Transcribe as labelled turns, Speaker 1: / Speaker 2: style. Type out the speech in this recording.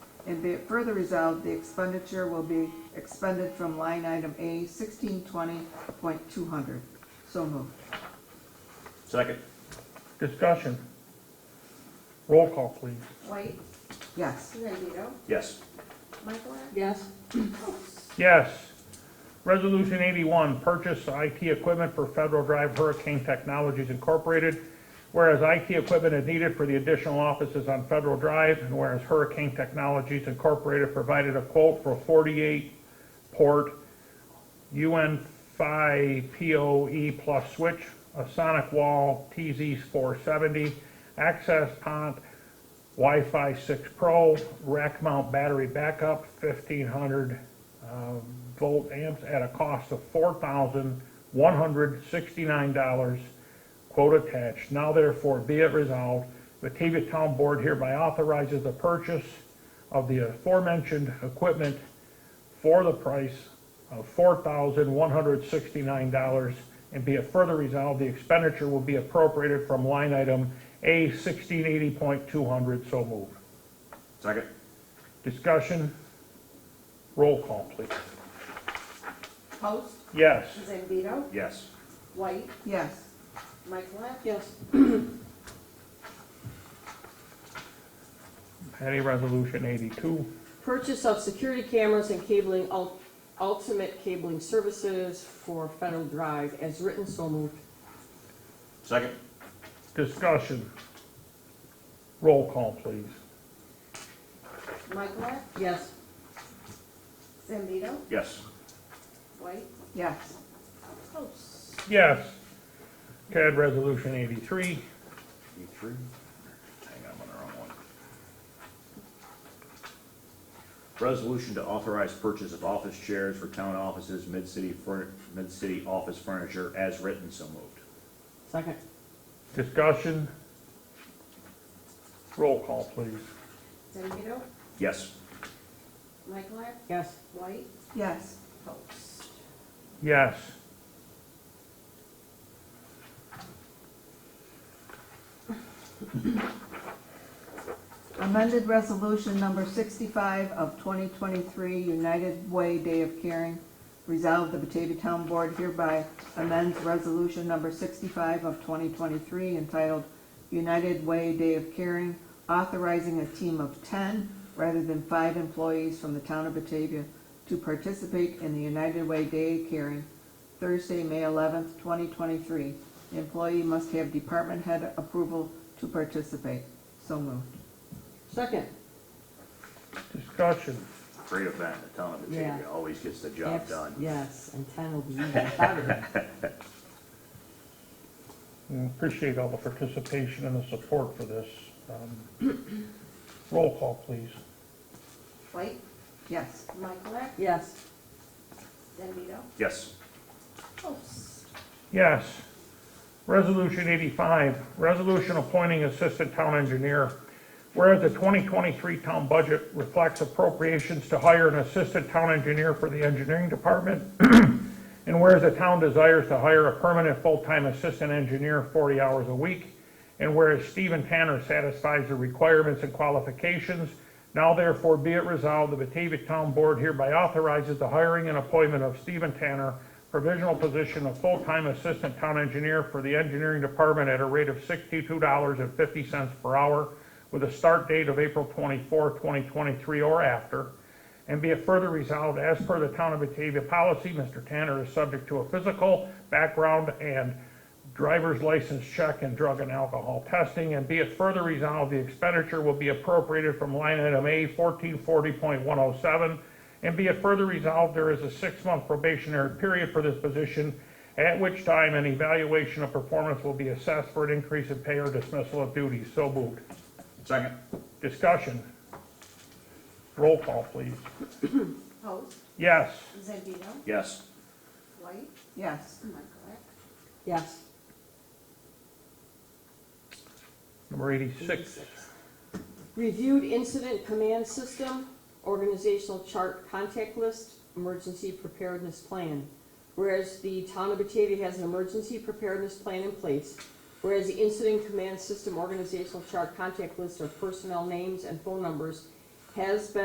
Speaker 1: And be it further resolved, the expenditure will be expended from line item A sixteen twenty point two hundred. So moved.
Speaker 2: Second.
Speaker 3: Discussion. Roll call, please.
Speaker 4: White,
Speaker 1: Yes.
Speaker 4: Zambito,
Speaker 2: Yes.
Speaker 4: Michaelak,
Speaker 5: yes,
Speaker 4: Post.
Speaker 3: Yes. Resolution 81, purchase IT equipment for Federal Drive Hurricane Technologies Incorporated. Whereas IT equipment is needed for the additional offices on Federal Drive, and whereas Hurricane Technologies Incorporated provided a quote for 48-port UN 5 PoE E plus switch, a sonic wall TZ470, access pont, Wi-Fi 6 Pro, rack mount battery backup, 1,500 uh, volt amps at a cost of $4,169, quote attached. Now therefore be it resolved, Batavia Town Board hereby authorizes the purchase of the aforementioned equipment for the price of $4,169, and be it further resolved, the expenditure will be appropriated from line item A 1680.200, so moved.
Speaker 2: Second.
Speaker 3: Discussion? Roll call, please.
Speaker 4: Post,
Speaker 3: Yes.
Speaker 4: Zambito,
Speaker 2: Yes.
Speaker 4: White,
Speaker 1: Yes.
Speaker 4: Michaelak,
Speaker 5: yes,
Speaker 3: Patty, Resolution 82.
Speaker 5: purchase of security cameras and cabling, ul- ultimate cabling services for Federal Drive as written, so moved,
Speaker 2: Second.
Speaker 3: Discussion? Roll call, please.
Speaker 4: Michaelak,
Speaker 5: yes,
Speaker 4: Zambito,
Speaker 2: Yes.
Speaker 4: White,
Speaker 1: Yes.
Speaker 4: Post.
Speaker 3: Yes. CAD Resolution 83.
Speaker 2: E three. Hang on, I'm on the wrong one. Resolution to authorize purchase of office chairs for town offices, mid-city, furn- mid-city office furniture as written, so moved.
Speaker 5: second,
Speaker 3: Discussion? Roll call, please.
Speaker 4: Zambito,
Speaker 2: Yes.
Speaker 4: Michaelak,
Speaker 5: yes,
Speaker 4: White,
Speaker 1: Yes.
Speaker 4: Post.
Speaker 3: Yes.
Speaker 1: Amended Resolution Number 65 of 2023, United Way Day of Caring. Resolved, the Batavia Town Board hereby amends Resolution Number 65 of 2023 entitled United Way Day of Caring, authorizing a team of 10 rather than five employees from the town of Batavia to participate in the United Way Day of Caring Thursday, May 11th, 2023. The employee must have department head approval to participate. So moved.
Speaker 5: second,
Speaker 3: Discussion?
Speaker 2: Great event, the town of Batavia always gets the job
Speaker 5: yes,
Speaker 2: done.
Speaker 5: yes, and ten will be even better,
Speaker 3: We Mm, Appreciate all the participation and the support for this. Um, Roll call, please.
Speaker 4: White,
Speaker 1: Yes.
Speaker 4: Michaelak,
Speaker 5: yes,
Speaker 4: Zambito,
Speaker 2: Yes.
Speaker 4: Post.
Speaker 3: Yes. Resolution 85, resolution appointing assistant town engineer. Whereas the 2023 town budget reflects appropriations to hire an assistant town engineer for the engineering department, and whereas the town desires to hire a permanent full-time assistant engineer 40 hours a week, and whereas Stephen Tanner satisfies the requirements and qualifications, now therefore be it resolved, the Batavia Town Board hereby authorizes the hiring and appointment of Stephen Tanner, provisional position of full-time assistant town engineer for the engineering department at a rate of $62.50 per hour, with a start date of April 24, 2023 or after. And be it further resolved, as per the Town of Batavia policy, Mr. Tanner is subject to a physical, background, and driver's license check and drug and alcohol testing. And be it further resolved, the expenditure will be appropriated from line item A fourteen forty point one oh seven. And be it further resolved, there is a six-month probationary period for this position, at which time an evaluation of performance will be assessed for an increase in pay or dismissal of duties. So moved.
Speaker 2: Second.
Speaker 3: Discussion. Roll call, please.
Speaker 4: Post.
Speaker 3: Yes.
Speaker 4: Zambito,
Speaker 2: Yes.
Speaker 4: White,
Speaker 1: Yes.
Speaker 4: Michaelak,
Speaker 5: yes.
Speaker 3: Number 86.
Speaker 5: Reviewed incident command system, organizational chart contact list, emergency preparedness plan. Whereas the town of Batavia has an emergency preparedness plan in place, whereas the incident command system organizational chart contact list of personnel names and phone numbers has been